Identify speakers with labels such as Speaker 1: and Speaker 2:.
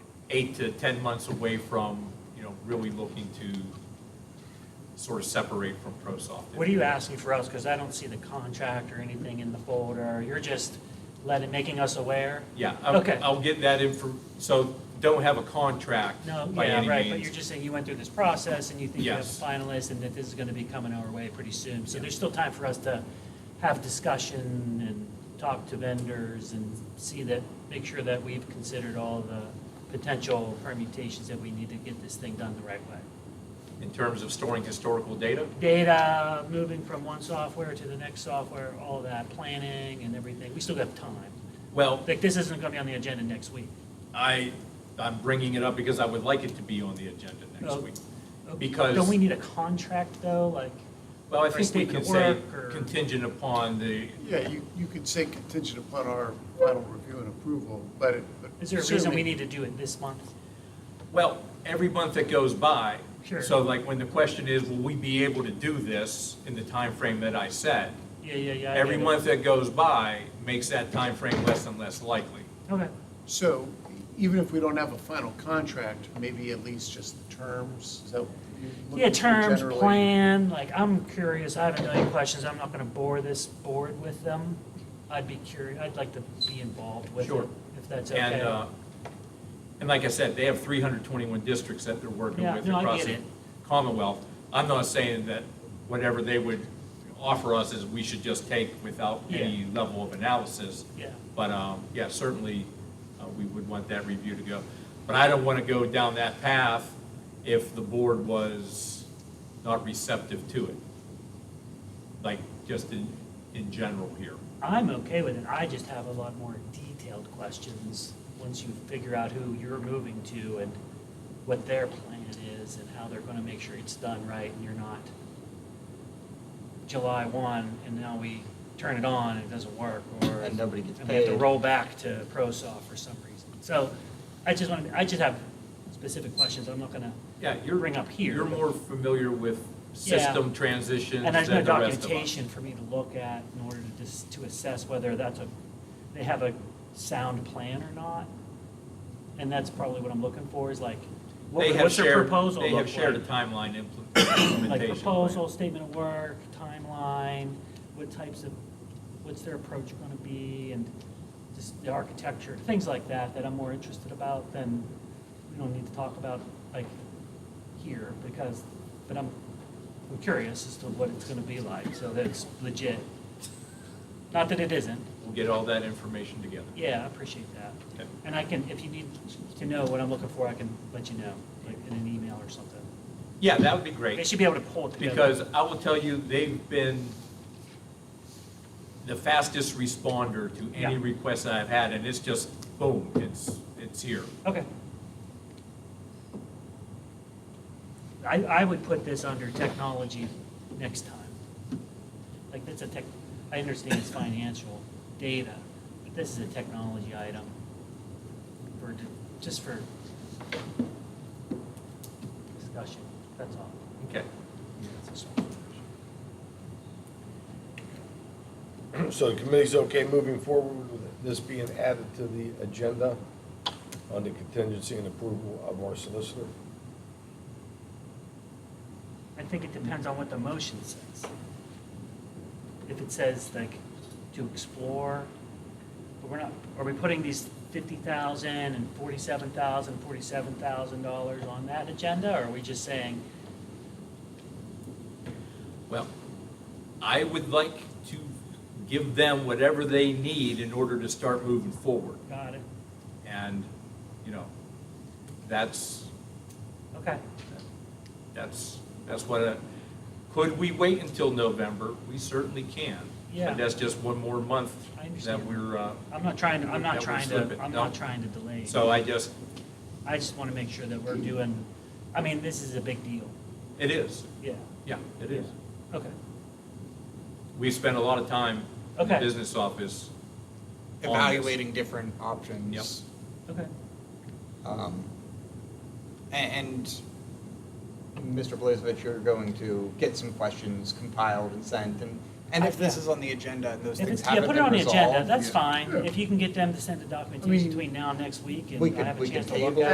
Speaker 1: eight to 10 months away from, you know, really looking to sort of separate from ProSoft.
Speaker 2: What are you asking for us? Because I don't see the contract or anything in the folder. You're just letting, making us aware?
Speaker 1: Yeah, I'll,
Speaker 2: Okay.
Speaker 1: I'll get that info, so don't have a contract
Speaker 2: No,
Speaker 1: by
Speaker 2: yeah,
Speaker 1: any
Speaker 2: right, but you're
Speaker 1: means.
Speaker 2: just saying you went through this process and you think you have a
Speaker 1: Yes.
Speaker 2: finalist and that this is going to be coming our way pretty soon. So there's still time for us to have discussion and talk to vendors and see that, make sure that we've considered all the potential permutations that we need to get this thing done the right way.
Speaker 1: In terms of storing historical data,
Speaker 2: Data, moving from one software to the next software, all that, planning and everything, we still got time.
Speaker 1: well,
Speaker 2: Like, this isn't going to be on the agenda next week.
Speaker 1: I, I'm bringing it up because I would like it to be on the agenda next
Speaker 2: Oh.
Speaker 1: week. Because-
Speaker 2: Don't we need a contract, though, like?
Speaker 1: Well, I
Speaker 2: or
Speaker 1: think they
Speaker 2: statement
Speaker 1: can
Speaker 2: of
Speaker 1: say
Speaker 2: work or-
Speaker 1: contingent upon the,
Speaker 3: Yeah, you, you could say contingent upon our final review and approval, but it. but
Speaker 2: Is there a reason we
Speaker 3: certainly-
Speaker 2: need to do it this month?
Speaker 1: well, every month that goes by.
Speaker 2: Sure.
Speaker 1: So like when the question is, will we be able to do this in the time frame that I said?
Speaker 2: Yeah, yeah, yeah. I
Speaker 1: Every
Speaker 2: get it.
Speaker 1: month that goes by makes that time frame less and less likely.
Speaker 2: Okay,
Speaker 3: So even if we don't have a final contract, maybe at least just the terms, is that? you're
Speaker 2: yeah,
Speaker 3: looking for
Speaker 2: terms,
Speaker 3: generally?
Speaker 2: plan, like, I'm curious, I have a million questions, I'm not gonna bore this board with them. I'd be curious, I'd like to be involved with
Speaker 1: Sure.
Speaker 2: it, if that's okay.
Speaker 1: And, uh, and like I said, they have 321 districts that they're working
Speaker 2: Yeah,
Speaker 1: with
Speaker 2: no, I
Speaker 1: across
Speaker 2: get
Speaker 1: the
Speaker 2: it.
Speaker 1: Commonwealth. I'm not saying that whatever they would offer us is we should just take without any level of analysis.
Speaker 2: Yeah,
Speaker 1: But, um, yeah, certainly, uh, we would want that review to go. But I don't want to go down that path if the board was not receptive to it. Like, just in, in general here.
Speaker 2: I'm okay with it, I just have a lot more detailed questions, once you figure out who you're moving to and what their plan is, and how they're gonna make sure it's done right, and you're not July one, and now we turn it on, and it doesn't work, or.
Speaker 4: And nobody gets
Speaker 2: And we have to
Speaker 4: paid.
Speaker 2: roll back to ProSoft for some reason. So I just want to, I just have specific questions I'm not gonna
Speaker 1: Yeah, you're.
Speaker 2: bring up here.
Speaker 1: You're
Speaker 2: but-
Speaker 1: more familiar with
Speaker 2: Yeah.
Speaker 1: system transitions than
Speaker 2: And
Speaker 1: the
Speaker 2: there's no
Speaker 1: rest of us.
Speaker 2: documentation for me to look at in order to dis to assess whether that's a, they have a sound plan or not. And that's probably what I'm looking for is like, what-
Speaker 1: They have
Speaker 2: what's their
Speaker 1: shared-
Speaker 2: proposal
Speaker 1: They have
Speaker 2: look
Speaker 1: shared a
Speaker 2: like?
Speaker 1: timeline impl-
Speaker 2: Like
Speaker 1: implementation. plan.
Speaker 2: proposal, statement of work, timeline, what types of, what's their approach gonna be and just the architecture, things like that, that I'm more interested about than we don't need to talk about like here because, but I'm, I'm curious as to what it's gonna be like, so that's legit. Not that it isn't,
Speaker 1: We'll get all that information together.
Speaker 2: yeah, I appreciate that.
Speaker 1: Okay.
Speaker 2: And I can, if you need to know what I'm looking for, I can let you know, like in an email or something.
Speaker 1: Yeah, that would be
Speaker 2: They
Speaker 1: great,
Speaker 2: should be able to pull it together.
Speaker 1: because I will tell you, they've been the fastest responder to any
Speaker 2: Yeah.
Speaker 1: request I've had, and it's just, boom, it's, it's here.
Speaker 2: Okay. I, I would put this under technology next time. Like, that's a tech, I understand it's financial data, but this is a technology item for, just for discussion, that's all.
Speaker 1: Okay.
Speaker 5: So the committee's okay moving forward with this being added to the agenda on the contingency and approval of our solicitor?
Speaker 2: I think it depends on what the motion says. If it says like to explore, but we're not, are we putting these fifty thousand and forty-seven thousand, forty-seven thousand dollars on that agenda? Or are we just saying,
Speaker 1: Well, I would like to give them whatever they need in order to start moving forward.
Speaker 2: got it,
Speaker 1: And, you know, that's,
Speaker 2: okay,
Speaker 1: that's, that's what, I- could we wait until November? We certainly can.
Speaker 2: Yeah.
Speaker 1: But that's just one more month
Speaker 2: I understand.
Speaker 1: that we're, uh,
Speaker 2: I'm not trying, to. I'm
Speaker 1: That
Speaker 2: not
Speaker 1: would
Speaker 2: trying
Speaker 1: slip
Speaker 2: to,
Speaker 1: it,
Speaker 2: I'm
Speaker 1: no.
Speaker 2: not trying to delay.
Speaker 1: so I just,
Speaker 2: I just want to make sure that we're doing, I mean, this is a big deal,
Speaker 1: it is,
Speaker 2: yeah,
Speaker 1: yeah, it is.
Speaker 2: okay,
Speaker 1: We spent a lot of time in the
Speaker 2: Okay.
Speaker 1: business office. on this.
Speaker 4: evaluating different options.
Speaker 2: okay.
Speaker 4: Um, a- And Mr. Blazevich, you're going to get some questions compiled and sent, and, and if this
Speaker 2: Yeah.
Speaker 4: is on the agenda and those
Speaker 2: If
Speaker 4: things
Speaker 2: it's, yeah,
Speaker 4: haven't
Speaker 2: put it
Speaker 4: been
Speaker 2: on the agenda,
Speaker 4: resolved,
Speaker 2: that's
Speaker 3: yeah.
Speaker 2: fine.
Speaker 3: Yeah.
Speaker 2: If you can get them to send the
Speaker 3: I
Speaker 2: documentation
Speaker 3: mean,
Speaker 2: between now and next week, and
Speaker 4: we
Speaker 2: I
Speaker 4: could-
Speaker 2: have a
Speaker 4: we could
Speaker 2: chance to look
Speaker 4: table
Speaker 2: at